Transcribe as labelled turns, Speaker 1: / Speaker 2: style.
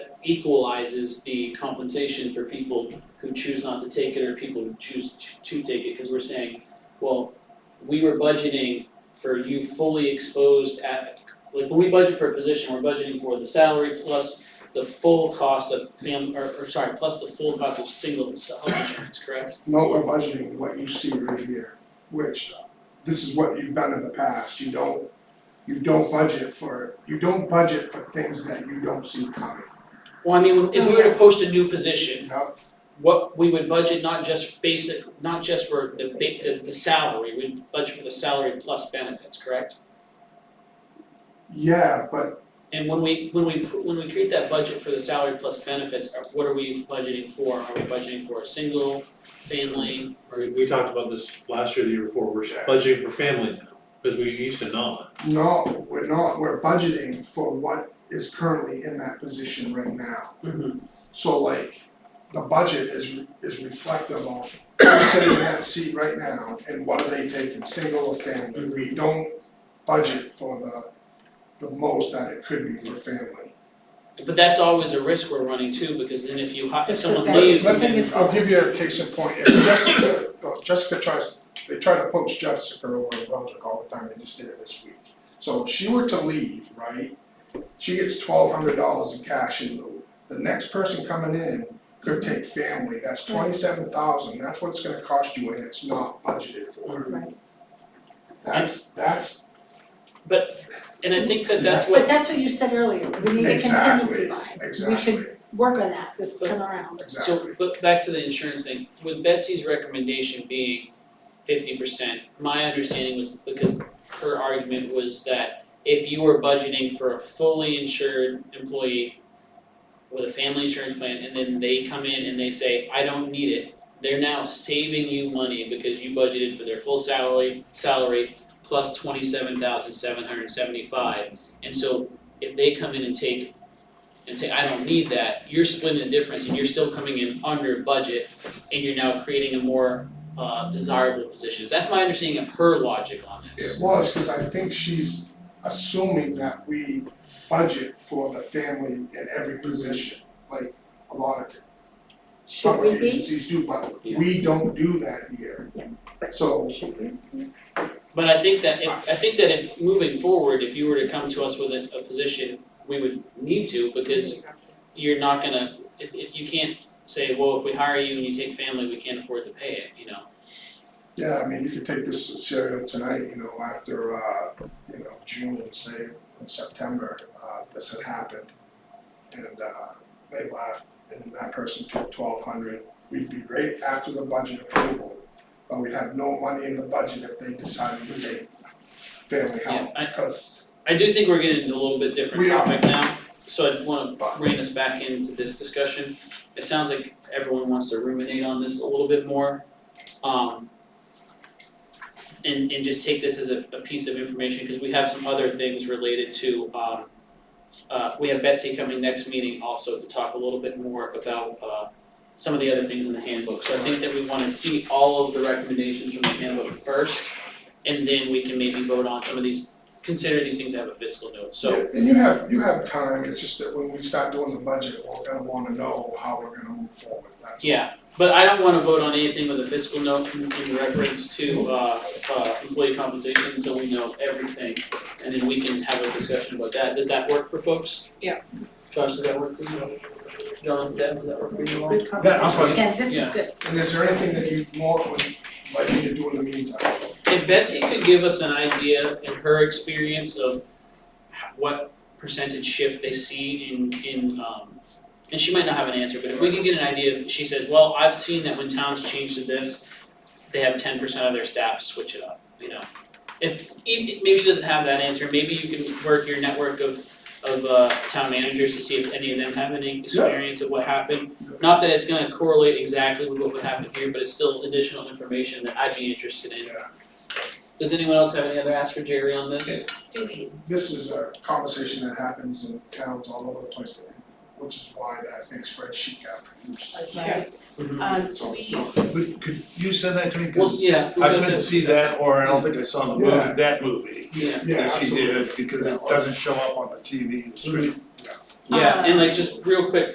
Speaker 1: equalizes the compensation for people who choose not to take it or people who choose to- to take it, because we're saying, well, we were budgeting for you fully exposed at, like, when we budget for a position, we're budgeting for the salary plus the full cost of fam, or, or sorry, plus the full cost of single health insurance, correct?
Speaker 2: No, we're budgeting what you see right here, which uh, this is what you've done in the past, you don't, you don't budget for, you don't budget for things that you don't see coming,
Speaker 1: Well, I mean, if we were to post a new position,
Speaker 2: you know?
Speaker 1: what we would budget, not just basic, not just for the ba- the the salary, we'd budget for the salary plus benefits, correct?
Speaker 2: Yeah, but
Speaker 1: And when we, when we, pr- when we create that budget for the salary plus benefits, are- what are we budgeting for? Are we budgeting for a single, family?
Speaker 3: We, we talked about this last year, the year before, we're budgeting for family now, because we used to not.
Speaker 2: no, we're not, we're budgeting for what is currently in that position right now.
Speaker 4: Mm-hmm.
Speaker 2: So like, the budget is is reflective of who's sitting in that seat right now and what are they taking, single or family? We don't budget for the the most that it could be for family.
Speaker 1: But that's always a risk we're running too, because then if you, hi- if
Speaker 4: It's
Speaker 1: someone
Speaker 4: okay.
Speaker 1: leaves
Speaker 2: Let
Speaker 1: and
Speaker 2: me,
Speaker 1: then,
Speaker 2: I'll give you a case in point, if Jessica, well, Jessica tries, they try to poach Jessica over in Brunswick all the time, they just did it this week. So if she were to leave, right, she gets twelve hundred dollars in cash in lieu. The next person coming in could take family, that's twenty-seven thousand, that's what it's gonna cost you and it's not budgeted
Speaker 1: Mm.
Speaker 2: for.
Speaker 4: Right,
Speaker 2: That's, that's,
Speaker 1: and I think that that's
Speaker 4: but
Speaker 1: what,
Speaker 4: that's what you said earlier, we need a contingency
Speaker 2: exactly,
Speaker 4: line, we should
Speaker 2: exactly,
Speaker 4: work on that this
Speaker 1: But-
Speaker 4: time around.
Speaker 2: exactly.
Speaker 1: so, but back to the insurance thing, with Betsy's recommendation being fifty percent, my understanding was, because her argument was that if you were budgeting for a fully insured employee with a family insurance plan, and then they come in and they say, I don't need it, they're now saving you money because you budgeted for their full salary, salary plus twenty-seven thousand seven hundred and seventy-five. And so if they come in and take, and say, I don't need that, you're splitting the difference and you're still coming in under budget, and you're now creating a more, uh, desirable position. That's my understanding of her logic on this.
Speaker 2: It was, cause I think she's assuming that we budget for the family in every position, like a lot of
Speaker 4: Should we
Speaker 2: public
Speaker 4: be?
Speaker 2: agencies do, but
Speaker 1: Yeah.
Speaker 2: we don't do that here.
Speaker 4: Yeah,
Speaker 2: So,
Speaker 4: Should we?
Speaker 1: But I think that if, I think that if, moving forward, if you were to come to us with a, a position, we would need to, because you're not gonna, if, if, you can't say, well, if we hire you and you take family, we can't afford to pay it, you know?
Speaker 2: yeah, I mean, you could take this scenario tonight, you know, after uh, you know, June, say, in September, uh, this had happened. And uh, they left and that person took twelve hundred, we'd be right after the budget approval. But we'd have no money in the budget if they decided to take family health,
Speaker 1: Yeah, I-
Speaker 2: because,
Speaker 1: I do think we're getting into a little bit different
Speaker 2: We are.
Speaker 1: topic now, so I wanna bring us back into this discussion. It sounds like everyone wants to ruminate on this a little bit more, um. And and just take this as a a piece of information, cause we have some other things related to um. Uh, we have Betsy coming next meeting also to talk a little bit more about uh some of the other things in the handbook. So I think that we wanna see all of the recommendations from the handbook first, and then we can maybe vote on some of these consider these things to have a fiscal note, so.
Speaker 2: Yeah, and you have, you have time, it's just that when we start doing the budget, we're gonna wanna know how we're gonna move forward, that's all.
Speaker 1: Yeah, but I don't wanna vote on anything with a fiscal note in in reference to uh uh employee compensation until we know everything. And then we can have a discussion about that, does that work for folks?
Speaker 4: Yeah.
Speaker 1: Josh, does that work for you? John, Deb, does that work for you all?
Speaker 4: Good
Speaker 2: Yeah, I'm
Speaker 4: conversation,
Speaker 2: fine.
Speaker 4: again, this
Speaker 1: Yeah.
Speaker 4: is good,
Speaker 2: And is there anything that you want, would like me to do in the meantime?
Speaker 1: If Betsy could give us an idea in her experience of h- what percentage shift they see in in um and she might not have an answer, but if we could get an idea if she says, well, I've seen that when towns change to this, they have ten percent of their staff switch it up, you know. If even maybe she doesn't have that answer, maybe you can work your network of of uh town managers to see if any of them have any experience of what happened. Not that it's gonna correlate exactly with what would happen here, but it's still additional information that I'd be interested in.
Speaker 2: Yeah.
Speaker 1: Does anyone else have any other ask for Jerry on this?
Speaker 2: Okay.
Speaker 4: do we?
Speaker 2: This is a conversation that happens in towns all over the place, which is why that big spreadsheet got produced.
Speaker 5: Yeah,
Speaker 1: Mhm.
Speaker 5: um,
Speaker 2: So it's
Speaker 5: we,
Speaker 2: not-
Speaker 6: But could you send that to me,
Speaker 1: Well,
Speaker 6: cause
Speaker 1: yeah,
Speaker 6: I couldn't see that, or I don't think I saw the
Speaker 2: Yeah.
Speaker 6: movie, that movie.
Speaker 1: yeah,
Speaker 2: Yeah,
Speaker 6: That she
Speaker 2: absolutely.
Speaker 6: did, because it doesn't show up on the TV, the screen.
Speaker 1: yeah, and like just real quick,